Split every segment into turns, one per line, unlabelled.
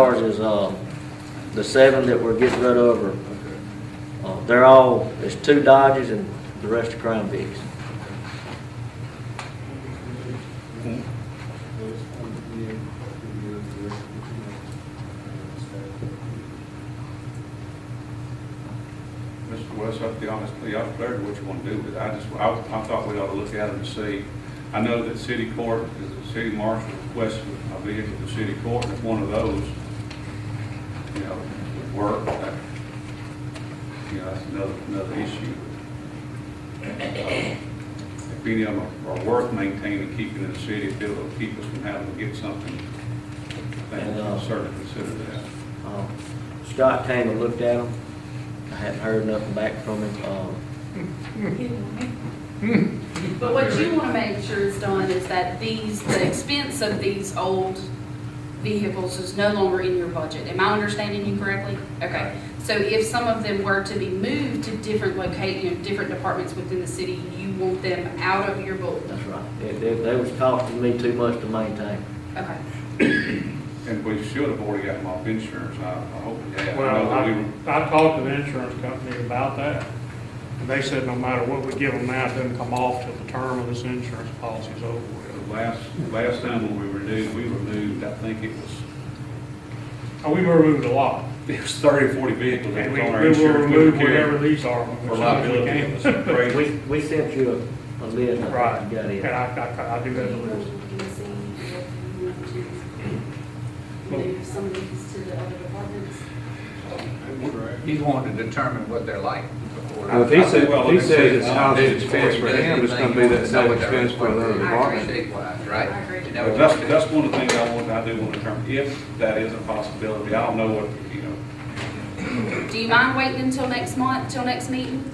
Ours is, uh, the seven that we're getting rid of are, uh, they're all, there's two Dodges and the rest are Crown Vics.
Mr. West, I'll be honest, with you, I'm clear to what you want to do, but I just, I, I thought we ought to look at them to see. I know that city court, the city marshal requested a vehicle to city court, and if one of those, you know, would work, that, you know, that's another, another issue. Uh, If any of them are worth maintaining, keeping in the city, if it'll keep us from having to get something, then we'll certainly consider that.
Um, Scott came and looked at them. I hadn't heard nothing back from him. Um,
But what you want to make sure is done is that these, the expense of these old vehicles is no longer in your budget. Am I understanding you correctly? Okay. So if some of them were to be moved to different locate, you know, different departments within the city, you want them out of your book?
That's right. They, they- they was costing me too much to maintain.
Okay.
And we should have already got them off insurance, I, I hope we have. I know
Well,
that we
I,
were-
I talked to the insurance company about that, and they said no matter what we give them now, it doesn't come off till the term of this insurance policy's over with.
The Last, last time when we renewed, we renewed, I think it was,
And we Oh, removed a lot,
it was thirty or forty vehicles that
and
was
we
on our
we will
insurance. We
remove
were carrying
whatever these are.
For
as soon as we
liability,
can.
it was crazy.
We, we sent you a, a list. I
Right,
think
and
You got it.
I, I, I do have the list.
Move some of these to the other departments?
He's wanting to determine what they're like before.
Well, if he says,
Well,
if he says it's
uh,
housing expense for him, it's gonna be that same expense for another department.
Statewide, right?
I agree.
You know,
But that's, that's one of the things I want, I do want to determine, if that is a possibility, I don't know what, you know,
Do you mind waiting until next month, till next meeting?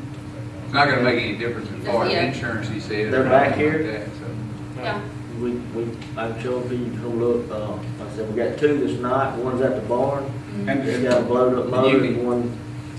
It's not gonna make any difference in far as
Yeah.
insurance, he said. or
They're back
anything
here?
like that, so.
Yeah.
We, we, I told you, you come look, uh, I said, we got two that's not, one's at the barn.
and,
It's got a
and
blowed up motor and one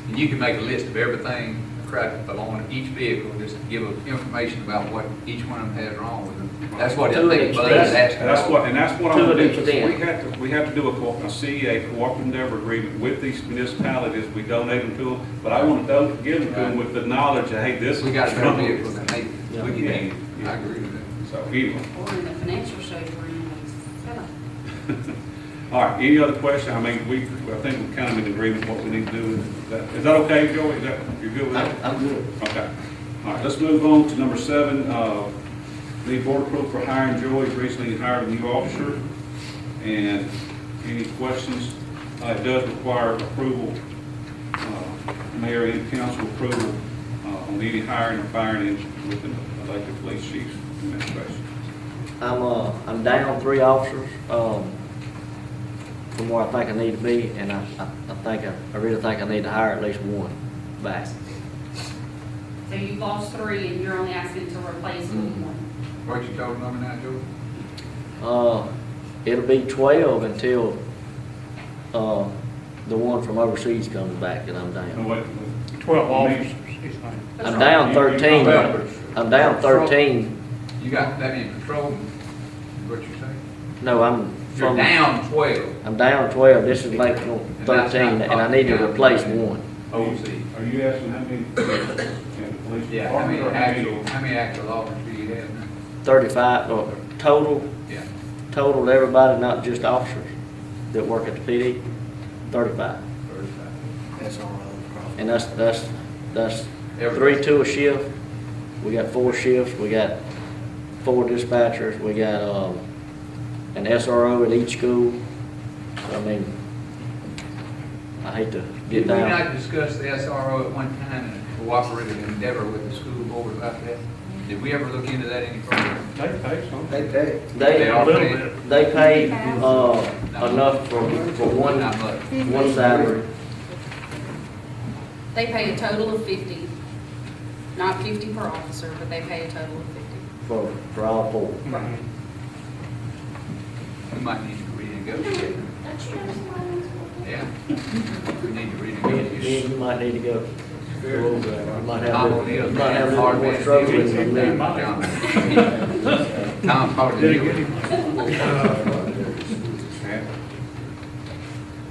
And you can make a list of everything, correct, along each vehicle, just give them information about what each one of them has wrong with them. That's what I
To an
think Bud
extent.
is asking.
that's what, and that's what I'm
To an
going to do.
extent.
We have to, we have to do a co- a CEA, cooperative endeavor agreement with these municipalities, we donate them to them, but I want to don't give them to them with the knowledge that, hey, this.
We got better vehicles than they,
Yeah.
we
Yeah.
can, I agree with that.
So anyway.
Or in the financial show, we're in like seven.
All right, any other question? I mean, we, I think we're kind of in agreement what we need to do. with that. Is that okay, Joey? Is that, you're good with that?
I'm good.
Okay. All right, let's move on to number seven. Uh, The board approval for hiring Joey, recently hired a new officer. And any questions? Uh, It does require approval, uh, mayor and council approval uh, on any hiring or firing in- with the elected police chief's administration.
I'm, uh, I'm down three officers, um, from where I think I need to be, and I, I, I think, I I really think I need to hire at least one back.
So you've lost three and you're only asking to replace
Mhm.
one.
What you told number nine, George?
Uh, it'll be twelve until, uh, the one from overseas comes back and I'm
No,
down.
wait,
Twelve
Maybe-
officers, he's saying.
I'm down thirteen, I'm down thirteen,
You got that in control, is what you're saying?
no, I'm
You're
from,
down twelve.
I'm down twelve, this is like
that's
thirteen,
not
and I need to
possible.
replace one.
OC.
Are you asking how many, in the police
Yeah, how
department
many
or how many?
actual, how many actual officers do you have? now?
Thirty-five, or total,
Yeah.
total to everybody, not just officers that work at the PD, thirty-five.
That's all right.
And that's, that's, that's three,
Everybody.
two a shift. We got four shifts, we got four dispatchers, we got, um, an SRO at each school. I mean, I hate to
Did
get
we
down.
not discuss the SRO at one time and cooperative endeavor with the school board about that? Did we ever look into that any further?
They pay some.
They pay.
They
They,
A
are
little
paying.
bit.
they pay, uh, enough for, for one,
Not much.
one salary.
They pay a total of fifty, not fifty per officer, but they pay a total of fifty.
for, for all four.
Mhm.
We might need to renegotiate. Yeah. We need
Me and-
to
me and
renegotiate.
you might need to go. You might have,
Tom
a
O'Neill.
little- you might have a little more struggle with me.
Tom, how
Did it get him?
Uh,